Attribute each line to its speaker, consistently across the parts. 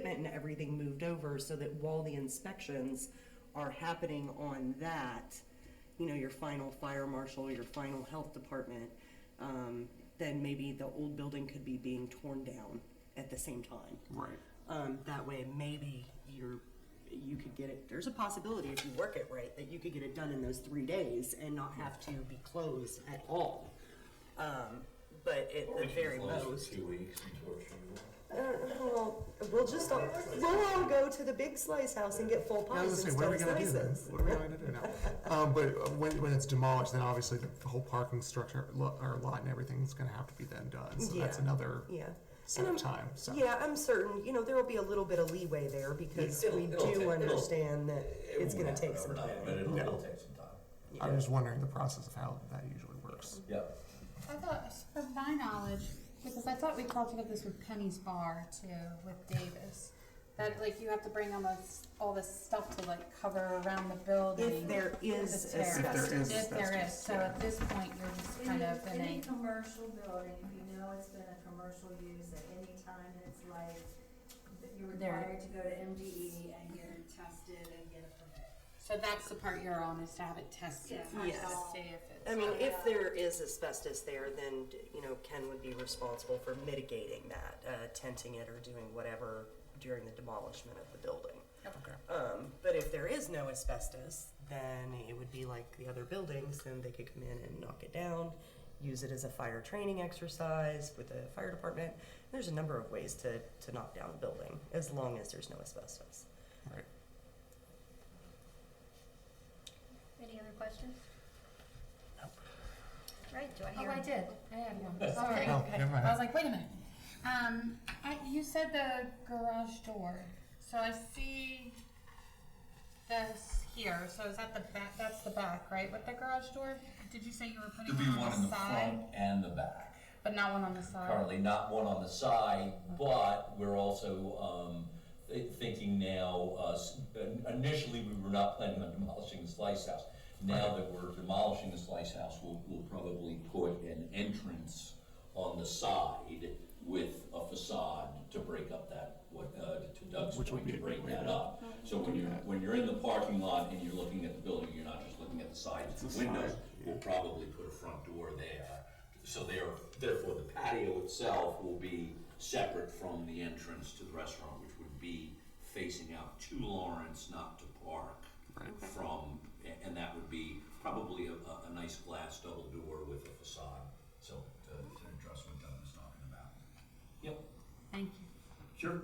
Speaker 1: gotten everything moved over so that while the inspections are happening on that, you know, your final fire marshal, your final health department, um, then maybe the old building could be being torn down at the same time.
Speaker 2: Right.
Speaker 1: Um, that way, maybe you're, you could get it, there's a possibility if you work it right, that you could get it done in those three days and not have to be closed at all. Um, but at the very most.
Speaker 3: Two weeks until it's
Speaker 4: Well, we'll just all, we'll all go to the big slice house and get full
Speaker 2: I was
Speaker 4: pies
Speaker 2: gonna say, what are
Speaker 4: instead
Speaker 2: we
Speaker 4: of
Speaker 2: gonna do then?
Speaker 4: slices.
Speaker 2: What are we gonna do now? Um, but uh, when, when it's demolished, then obviously the the whole parking structure, lo- or lot and everything's gonna have to be then done, so that's
Speaker 1: Yeah.
Speaker 2: another
Speaker 4: Yeah.
Speaker 2: set of
Speaker 4: And
Speaker 2: time, so.
Speaker 4: Yeah, I'm certain, you know, there will be a little bit of leeway there because
Speaker 3: Yeah.
Speaker 4: we
Speaker 3: It'll- it'll
Speaker 4: do
Speaker 3: take- it'll-
Speaker 4: understand that it's gonna take some time.
Speaker 3: But it'll, it'll take some time.
Speaker 2: I was just wondering the process of how that usually works.
Speaker 3: Yep.
Speaker 5: I thought, from my knowledge, because I thought we talked about this with Penny's Bar too, with Davis, that like you have to bring all this, all this stuff to like cover around the building.
Speaker 1: If there is
Speaker 5: the terrace.
Speaker 1: asbestos.
Speaker 2: If there is
Speaker 5: If there is,
Speaker 2: asbestos,
Speaker 5: so at this point, you're just kind
Speaker 6: Any,
Speaker 5: of in
Speaker 6: any
Speaker 5: a,
Speaker 6: commercial building, if you know it's been a commercial use at any time in its life, that you're
Speaker 5: There-
Speaker 6: required to go to MDE and get it tested and get a permit.
Speaker 5: so that's the part you're on, is to have it tested
Speaker 6: Yeah.
Speaker 5: first to
Speaker 1: Yes.
Speaker 5: see if it's.
Speaker 1: I mean, if there is asbestos there, then, you know, Ken would be responsible for mitigating that, uh, tenting it or doing whatever during the demolishment of the building.
Speaker 2: Okay.
Speaker 1: Um, but if there is no asbestos, then it would be like the other buildings, then they could come in and knock it down, use it as a fire training exercise with the fire department. There's a number of ways to, to knock down a building, as long as there's no asbestos.
Speaker 2: Right.
Speaker 7: Any other questions? Right, do I
Speaker 5: Oh,
Speaker 7: hear?
Speaker 5: I did, I had one, sorry.
Speaker 2: Oh, never mind.
Speaker 5: I was like, wait a minute. Um, I, you said the garage door, so I see this here, so is that the back, that's the back, right, with the garage door? Did you say you were putting
Speaker 3: There'll be
Speaker 5: one on
Speaker 3: one in
Speaker 5: the
Speaker 3: the front
Speaker 5: side,
Speaker 3: and the back.
Speaker 5: but not one on the side?
Speaker 3: Currently, not one on the side, but we're also, um, thi- thinking now, uh, s- initially, we were not planning on demolishing the Slice House. Now that we're demolishing the Slice House, we'll, we'll probably put an entrance on the side with a facade to break up that, what, uh, to Doug's point, to break that up. So when you're, when you're in the parking lot and you're looking at the building, you're not just looking at the sides of the windows. We'll probably put a front door there. So there, therefore, the patio itself will be separate from the entrance to the restaurant, which would be facing out to Lawrence, not to Park. From, a- and that would be probably a, a, a nice glass double door with a facade. So uh, to, to address what Doug was talking about. Yep.
Speaker 5: Thank you.
Speaker 3: Sure.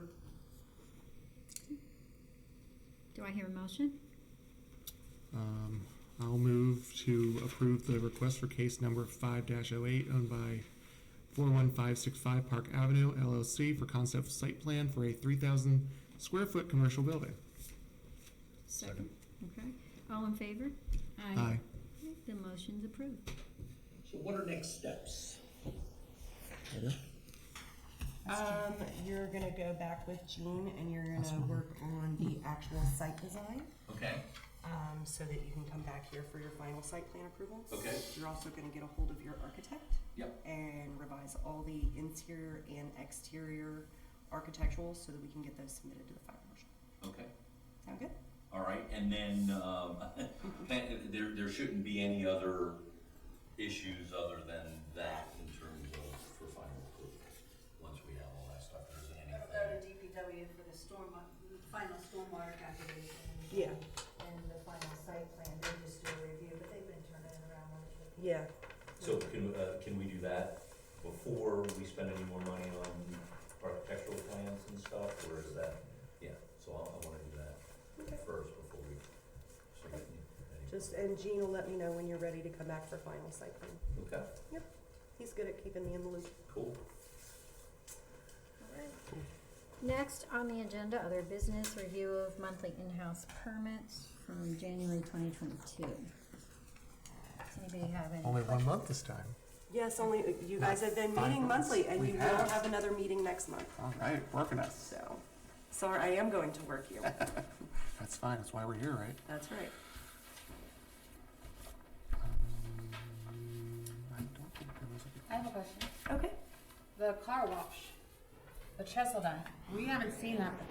Speaker 7: Do I hear a motion?
Speaker 2: Um, I'll move to approve the request for case number five 8 owned by four one five six five Park Avenue LLC for concept site plan for a three thousand square foot commercial building.
Speaker 7: Second. Okay, all in favor?
Speaker 2: Aye.
Speaker 7: The motion's approved.
Speaker 3: So what are next steps?
Speaker 1: Um, you're gonna go back with Jean and you're gonna work on the actual site design,
Speaker 3: Okay.
Speaker 1: um, so that you can come back here for your final site plan approval.
Speaker 3: Okay.
Speaker 1: You're also gonna get a hold of your architect
Speaker 3: Yep.
Speaker 1: and revise all the interior and exterior architectural so that we can get those submitted to the fire marshal.
Speaker 3: Okay.
Speaker 1: Sound good?
Speaker 3: All right. And then um, there, there shouldn't be any other issues other than that in terms of for final approval. Once we have all that stuff, there isn't
Speaker 6: Go
Speaker 3: anything.
Speaker 6: to DPW for the storm, final stormwater calculation.
Speaker 1: Yeah.
Speaker 6: And the final site plan, they just do a review, but they've been turning it around.
Speaker 1: Yeah.
Speaker 3: So can, uh, can we do that before we spend any more money on architectural plans and stuff, or is that? Yeah, so I, I wanna do that first before we. so we can-
Speaker 1: Just, and Jean will let me know when you're ready to come back for final site plan.
Speaker 3: Okay,
Speaker 1: Yep. He's good at keeping me in the loop.
Speaker 3: cool.
Speaker 7: Next on the agenda, other business review of monthly in-house permits from January twenty twenty-two. Does anybody have any?
Speaker 2: Only one month this time.
Speaker 1: Yes, only, you guys have been
Speaker 2: Five
Speaker 1: meeting
Speaker 2: months.
Speaker 1: monthly and
Speaker 2: We
Speaker 1: you will
Speaker 2: have.
Speaker 1: have another meeting next month,
Speaker 2: All right, working us.
Speaker 1: so. Sorry, I am going to work you.
Speaker 2: That's fine, that's why we're here, right?
Speaker 1: That's right.
Speaker 2: I don't think there was a-
Speaker 5: I have a question.
Speaker 1: Okay.
Speaker 5: The car wash, the Cheseldine, we haven't seen that